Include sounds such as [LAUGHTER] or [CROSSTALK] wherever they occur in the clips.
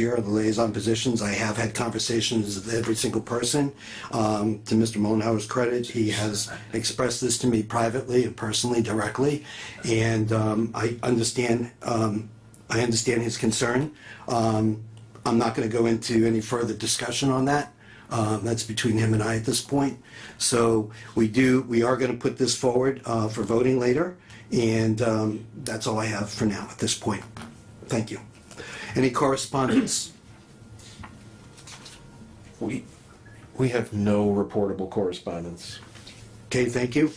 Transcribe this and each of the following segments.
year of the liaison positions. I have had conversations with every single person. Um, to Mr. Mullenhour's credit, he has expressed this to me privately and personally, directly. And, um, I understand, um, I understand his concern. Um, I'm not gonna go into any further discussion on that. Um, that's between him and I at this point. So we do, we are gonna put this forward, uh, for voting later. And, um, that's all I have for now at this point. Thank you. Any correspondence? We, we have no reportable correspondence. Okay, thank you.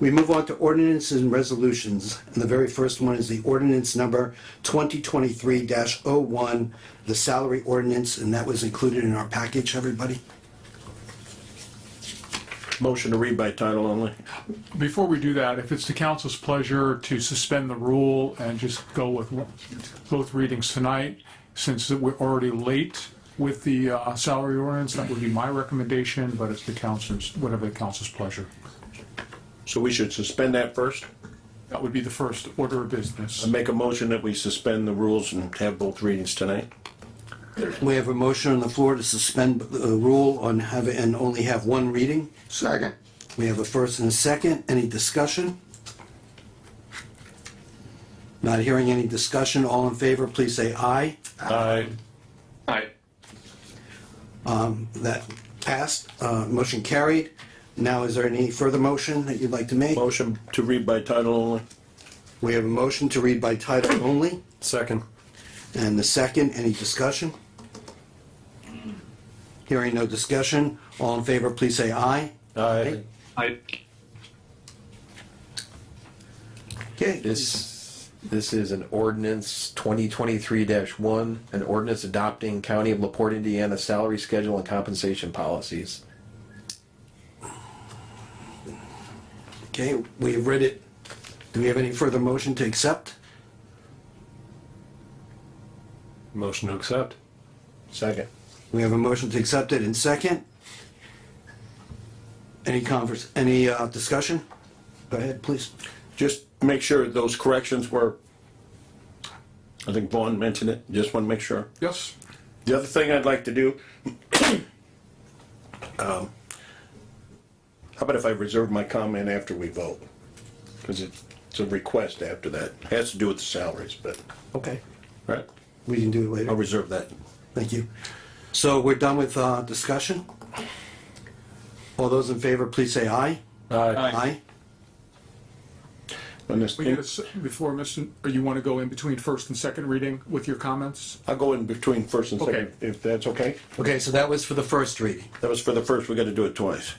We move on to ordinances and resolutions, and the very first one is the ordinance number 2023-01, the salary ordinance, and that was included in our package, everybody? Motion to read by title only. Before we do that, if it's the council's pleasure to suspend the rule and just go with both readings tonight, since we're already late with the uh, salary ordinance, that would be my recommendation, but it's the council's, whatever the council's pleasure. So we should suspend that first? That would be the first order of business. Make a motion that we suspend the rules and have both readings tonight? We have a motion on the floor to suspend the uh, rule on have, and only have one reading. Second. We have a first and a second. Any discussion? Not hearing any discussion. All in favor, please say aye. Aye. That passed, uh, motion carried. Now, is there any further motion that you'd like to make? Motion to read by title only? We have a motion to read by title only, Second. and the second, any discussion? Hearing no discussion, all in favor, please say aye. Aye. Okay, This, this is an ordinance twenty twenty-three one, an ordinance adopting County of LaPorte, Indiana salary schedule and compensation policies. okay, we have read it. Do we have any further motion to accept? Motion to accept. Second. We have a motion to accept it in second. Any converse, any uh, discussion? Go ahead, please. Just make sure those corrections were, I think Vaughn mentioned it, just want to make sure. Yes? The other thing I'd like to do, um, how about if I reserve my comment after we vote? Because it's a request after that. Has to do with the salaries, but, Okay. right? We can do it later. I'll reserve that. Thank you. So we're done with uh, discussion. All those in favor, please say aye. Aye. Aye. On this- We get a s- Before, Mr., or you want to go in between first and second reading with your comments? I'll go in between first and second, Okay. if that's okay. Okay, so that was for the first reading. That was for the first, we gotta do it twice.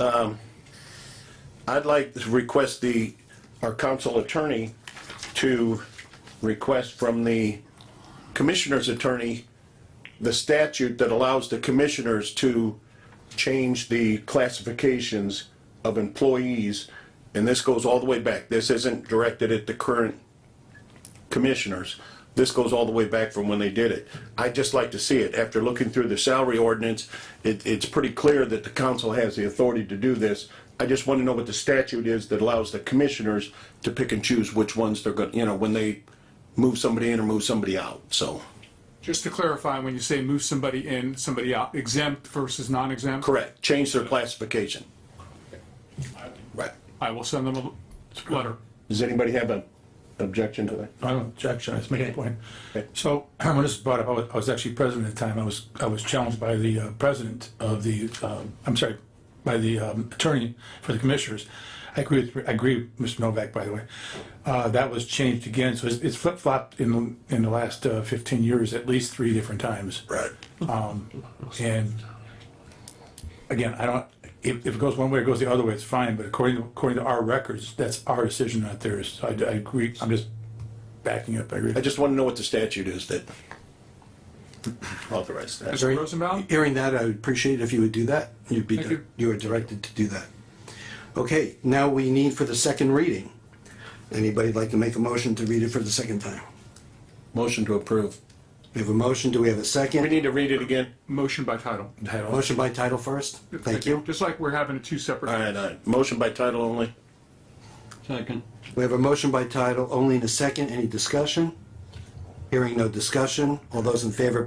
Um, I'd like to request the, our council attorney to request from the commissioner's attorney the statute that allows the commissioners to change the classifications of employees. And this goes all the way back. This isn't directed at the current commissioners. This goes all the way back from when they did it. I'd just like to see it. After looking through the salary ordinance, it, it's pretty clear that the council has the authority to do this. I just want to know what the statute is that allows the commissioners to pick and choose which ones they're going, you know, when they move somebody in or move somebody out, so. Just to clarify, when you say move somebody in, somebody out, exempt versus non-exempt? Correct, change their classification. Right. I will send them a letter. Does anybody have an objection to that? I don't objection, I was making a point. Okay. So [CLEARS THROAT] when this was brought up, I was, I was actually president at the time, I was, I was challenged by the uh, president of the, um, I'm sorry, by the um, attorney for the commissioners. I agree with, I agree with Mr. Novak, by the way. Uh, That was changed again, so it's- it's flip-flopped in, in the last uh, 15 years, at least three different times. Um, Right. And again, I don't, if, if it goes one way, it goes the other way, it's fine, but according, according to our records, that's our decision, not theirs. So I, I agree, I'm just backing up, I agree. I just want to know what the statute is that [LAUGHS] authorized that. Mr. Rosenbaum? Hearing that, I would appreciate it if you would do that. You'd be, Thank you. you are directed to do that. Okay, now we need for the second reading. Anybody like to make a motion to read it for the second time? Motion to approve. We have a motion, do we have a We second? need to read it again? Motion by title. Motion by title first? Thank you. Just like we're having two separate. All right, all right. Motion by title only? We have a motion by title, only in a second, any discussion? Hearing no discussion, all those in favor,